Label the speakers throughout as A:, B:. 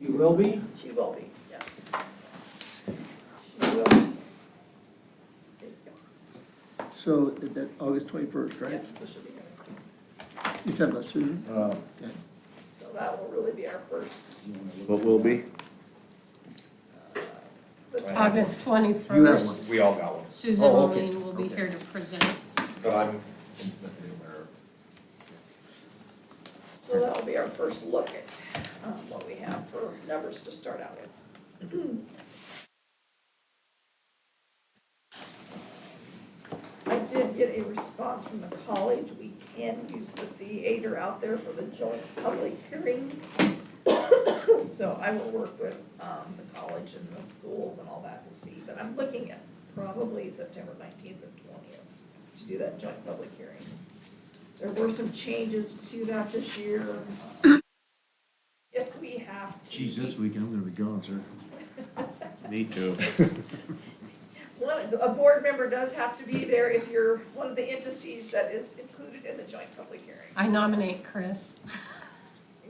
A: She will be?
B: She will be, yes. She will. be. There you go.
C: So that, that August twenty-first, right?
B: Yeah, so she'll be here next time.
C: You're talking about Susan?
D: Uh,
B: So that will really be our first. uh,
D: What will be?
B: the
E: Right.
F: August
C: You have one.
F: twenty-first,
E: We all got one,
F: Susan
C: Oh, okay.
F: Moline will be here to present.
E: but I'm intimately aware.
B: So that'll be our first look at um, what we have for numbers to start out with. I did get a response from the college, we can use the theater out there for the joint public hearing. So I will work with um, the college and the schools and all that to see, but I'm looking at probably September nineteenth or twentieth to do that joint public hearing. There were some changes to that this year. If we have to.
G: Geez, this weekend, I'm gonna be gone, sir.
D: Me too.
B: One, a board member does have to be there if you're one of the entities that is included in the joint public hearing.
F: I nominate Chris.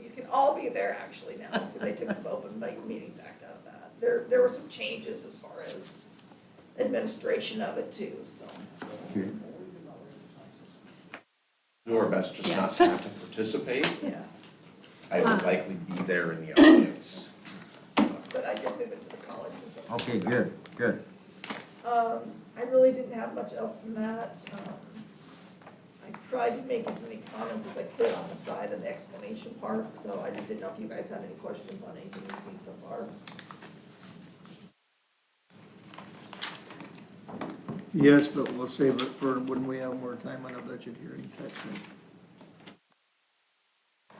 B: You can all be there actually now, because they took the Open Meetings Act out of that. There, there were some changes as far as administration of it too, so.
G: Okay.
E: Do our best just not
F: Yes. Uh-huh.
E: to have to participate.
B: Yeah,
E: I will likely be there in the audience.
B: but I did move it to the college and so.
G: Okay, good, good.
B: Um, I really didn't have much else than that. Um, I tried to make as many comments as I could on the side and the explanation part, so I just didn't know if you guys had any questions on anything you've seen so far.
C: Yes, but we'll save it for when we have more time on a budget hearing, that's it.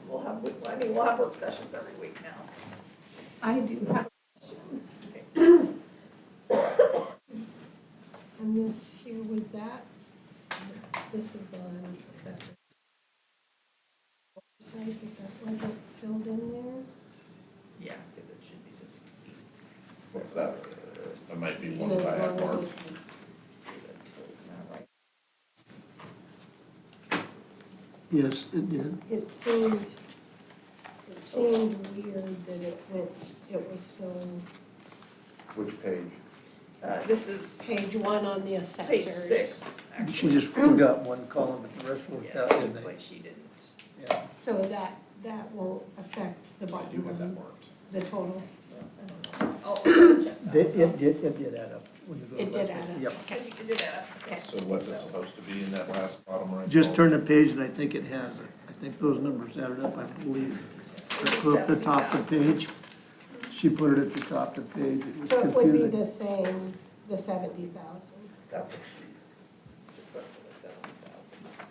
B: We'll have, week- I mean, we'll have work sessions every week now. so.
F: I do have.
B: Okay.
F: And this here was that. This is on assessor. So I think that wasn't filled in there.
B: Yeah, because it should be the sixteen.
E: What's that? That might be one
F: It
E: that
F: is
E: I have
F: one of
E: marked.
F: the-
B: See the total, not right.
C: Yes, it did.
H: It seemed, it seemed weird that it went, it was so,
E: Which page?
B: Uh, this is
H: page one on the assessors.
B: page six,
C: She
B: actually.
C: just forgot one column, but the rest worked
B: Yeah,
C: out, didn't
B: looks
C: they?
B: like she didn't.
C: Yeah.
H: So that, that will affect the
E: I do
H: bottom
E: have that
H: line,
E: marked.
H: the total.
E: Oh,
B: I don't know. I'll- Oh, I'll check that.
C: They- It did, it did add up. when you go
H: It did
C: back.
H: add up.
C: Yep.
B: I think you did that. Okay.
E: So what's it supposed to be in that last bottom right?
C: Just
E: column?
C: turn the page and I think it has it. I think those numbers added up, I believe. Put up the top of the page. She put it at the top of the page. It was
H: So it would be
C: confusing.
H: the same, the seventy thousand.
B: That's what she's requested, is seventy thousand.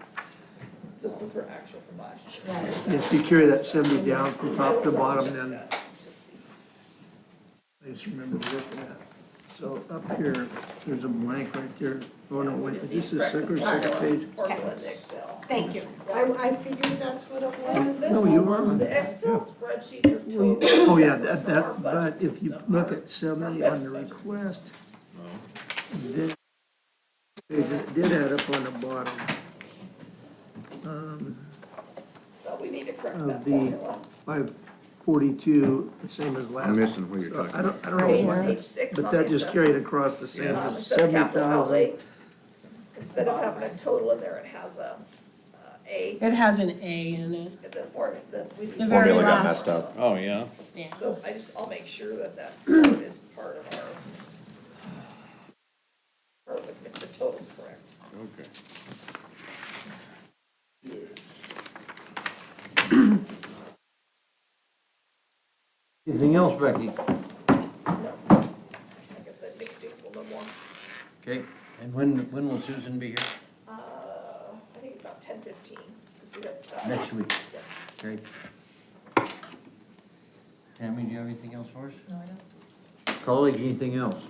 B: This was her actual from last year.
H: Right.
C: If you carry that seventy down from top to bottom, then
B: To see.
C: I just remember looking at. So up here, there's a blank right there. Oh, no, wait, is this the second or second page?
B: Formula to Excel.
H: Thank you. I, I figured that's what it was.
C: Oh, No, you are.
B: The Excel spreadsheets are totally.
C: Oh, yeah,
B: separate
C: that,
B: from our budget
C: that, but if you
B: system.
C: look at seventy on the request, then it did add up on the bottom.
B: So we need to correct
C: of
B: that
C: the-
B: formula.
C: Five forty-two, the same as last.
G: I'm missing what you're talking
C: I don't, I don't know
B: Page
C: why,
B: page six
C: but
B: on the
C: that just
B: assessment.
C: carried across the
B: Um,
C: same
B: it
C: as
B: says
C: seventy
B: capital outlay.
C: thousand.
B: Instead of having a total in there, it has a, uh, A,
F: It has an A in it,
B: the form, the. we just-
F: The very
E: Formula got
F: last.
E: messed up.
D: Oh, yeah?
F: yeah.
B: So I just, I'll make sure that that is part of our, or if the total's correct.
G: Okay. Anything else, Becky?
B: No, it's, like I said, mixed duple, no more.
G: Okay, and when, when will Susan be here?
B: Uh, I think about ten fifteen, because we got stuff.
G: Next week.
B: Yeah.
G: Okay. Tammy, do you have anything else for us?
B: No, I don't.
G: College, anything else?